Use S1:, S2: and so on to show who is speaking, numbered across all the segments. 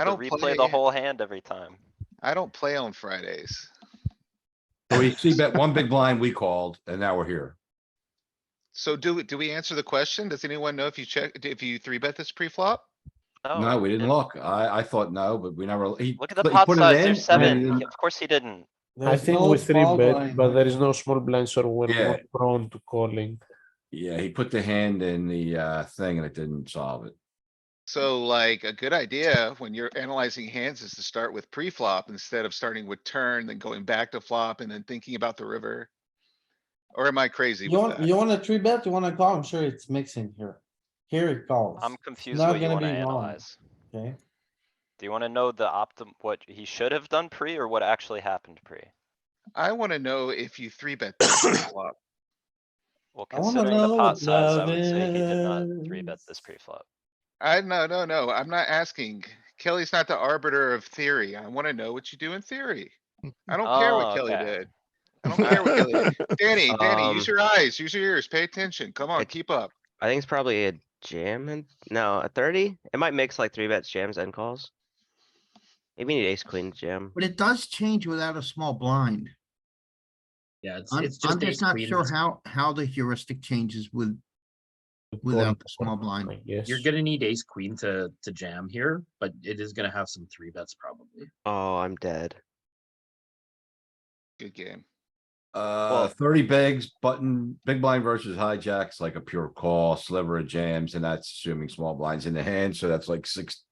S1: I
S2: to
S1: don't
S2: replay
S1: play,
S2: the whole hand every time.
S1: I don't play on Fridays.
S3: So we see bet one big blind, we called, and now we're here.
S1: So do, do we answer the question? Does anyone know if you check, if you three bet this pre-flop?
S3: No, we didn't
S2: it-
S3: look. I, I thought no, but we never, he.
S2: Oh, Look at the
S3: but he
S2: pot
S3: put it
S2: size,
S3: in,
S2: there's
S3: and then he
S2: seven.
S3: didn't-
S2: Of course he didn't.
S4: I
S5: There's
S4: think
S5: no
S4: we three
S5: small
S4: bet,
S5: blind.
S4: but there is no small blind, so we're
S3: Yeah.
S4: not prone to calling.
S3: Yeah, he put the hand in the, uh, thing and it didn't solve it.
S1: So like a good idea when you're analyzing hands is to start with pre-flop instead of starting with turn, then going back to flop and then thinking about the river. Or am I crazy
S5: You
S1: with
S5: want,
S1: that?
S5: you want a three bet, you wanna call, I'm sure it's mixing here. Here it calls,
S2: I'm confused
S5: not
S2: what you
S5: gonna
S2: wanna
S5: be wrong.
S2: analyze.
S5: okay?
S2: Do you wanna know the optim, what he should have done pre or what actually happened pre?
S1: I wanna know if you three bet this pre-flop.
S2: Well,
S5: I wanna
S2: considering the
S5: know
S2: pot
S5: what
S2: size, I
S5: love
S2: would say he did not three bet
S5: is.
S2: this pre-flop.
S1: I, no, no, no, I'm not asking. Kelly's not the arbiter of theory. I wanna know what you do in theory. I don't care
S2: Oh,
S1: what Kelly
S2: okay.
S1: did. I don't care what Kelly did. Danny, Danny, use
S6: Um,
S1: your eyes, use your ears, pay attention. Come on,
S6: it's-
S1: keep up.
S6: I think it's probably a jam and, no, a thirty? It might mix like three bets, jams and calls. Maybe you need ace queen to jam.
S7: But it does change without a small blind.
S8: Yeah, it's,
S7: I'm,
S8: it's just
S7: I'm
S8: ace
S7: just not
S8: queen
S7: sure
S8: that's-
S7: how, how the heuristic changes with,
S4: to call
S7: Without the
S4: or
S7: small
S4: not,
S7: blind.
S4: I guess.
S8: You're gonna need ace queen to to jam here, but it is gonna have some three bets probably.
S6: Oh, I'm dead.
S1: Good game.
S3: Uh, thirty bigs, button, big blind versus hijacks, like a pure call, sliver of jams, and that's assuming small blinds in the hand, so that's like six.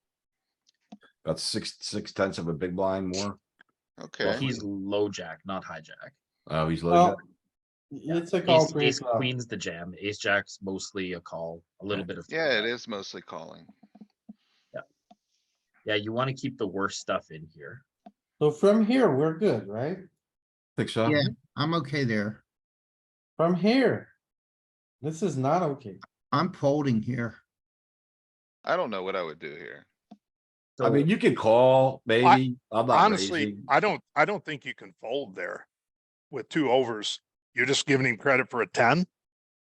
S3: About six, six tenths of a big blind more.
S8: Well,
S1: Okay,
S8: he's low jack, not hijack.
S3: Oh, he's low.
S5: Well,
S3: jack.
S5: it's a call
S8: Ace, ace
S5: pre-flop.
S8: queen's the jam. Ace jack's mostly a call, a little bit of. three
S1: yeah, it
S8: bet.
S1: is mostly calling.
S8: Yeah, you wanna keep the worst stuff in here.
S5: So from here, we're good, right?
S3: Think so?
S7: Yeah. I'm okay there.
S5: From here. This is not okay.
S7: I'm folding here.
S1: I don't know what I would do here.
S3: I mean, you can call, maybe. I'm not
S9: Honestly,
S3: raising.
S9: I don't, I don't think you can fold there with two overs. You're just giving him credit for a ten.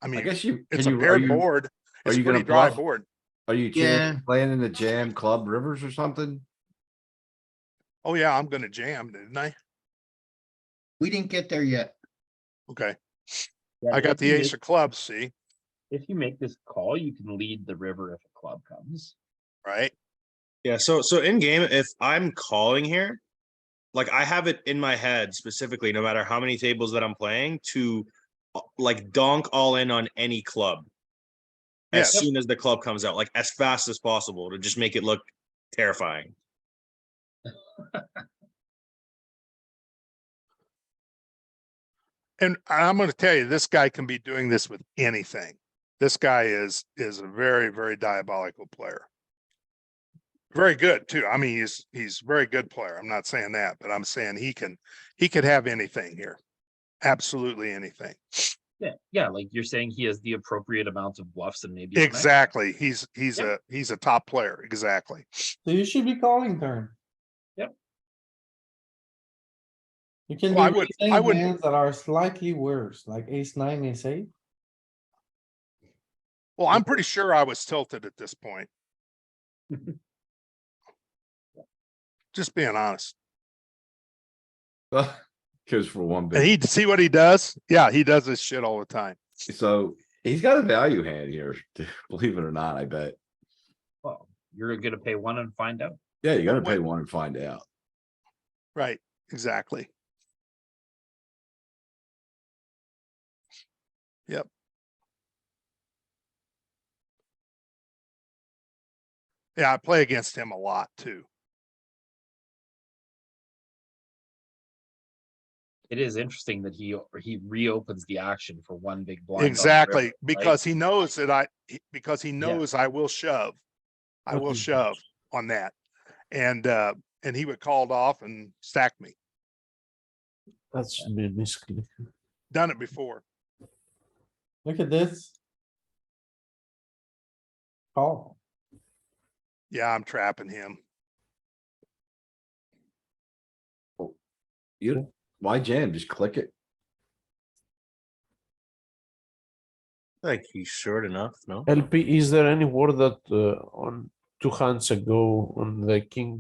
S9: I
S3: I
S9: mean,
S3: guess you.
S9: it's
S3: can
S9: a
S3: you- are
S9: paired
S3: you-
S9: board.
S3: are
S9: It's a
S3: you gonna
S9: pretty dry
S3: bluff?
S9: board.
S3: Are you chan-
S7: Yeah.
S3: playing in the jam club rivers or something?
S9: Oh yeah, I'm gonna jam, didn't I?
S7: We didn't get there yet.
S9: Okay,
S8: Yeah,
S9: I
S8: if
S9: got the
S8: you
S9: ace
S8: make-
S9: of clubs, see,
S8: If you make this call, you can lead the river if a club comes.
S9: right?
S10: Yeah, so so in game, if I'm calling here, like I have it in my head specifically, no matter how many tables that I'm playing, to uh, like donk all in on any club. As
S9: Yeah.
S10: soon as the club comes out, like as fast as possible to just make it look terrifying.
S9: And I'm gonna tell you, this guy can be doing this with anything. This guy is, is a very, very diabolical player. Very good too. I mean, he's, he's a very good player. I'm not saying that, but I'm saying he can, he could have anything here. Absolutely anything.
S8: Yeah, yeah, like you're saying, he has the appropriate amount of bluffs and maybe. a mech.
S9: Exactly. He's, he's
S8: Yeah.
S9: a, he's a top player. Exactly.
S5: So you should be calling turn.
S8: Yep.
S5: You can
S9: Well, I
S5: be
S9: would- I
S5: playing
S9: would-
S5: hands that are slightly worse, like ace nine, ace eight.
S9: Well, I'm pretty sure I was tilted at this point. Just being honest.
S3: Goes for one
S9: And
S3: big.
S9: he, see what he does? Yeah, he does this shit all the time.
S3: So he's got a value hand here, believe it or not, I bet.
S8: Well, you're gonna pay one and find out.
S3: Yeah, you gotta
S9: What-
S3: pay one and find out.
S9: Right, exactly. Yep. Yeah, I play against him a lot too.
S8: It is interesting that he, he reopens the action for one big blind. on the river,
S9: Exactly,
S8: right?
S9: because he knows that I, he- because he knows I will shove. I
S5: Oh,
S4: What
S9: will
S4: he
S9: shove on that. And, uh, and he would called off and stack me.
S4: That's basically.
S9: Done it before.
S5: Look at this. Call.
S9: Yeah, I'm trapping him.
S3: You, why jam? Just click it.
S10: Like he's short enough, no?
S4: LP, is there any word that uh, on two hands ago on the king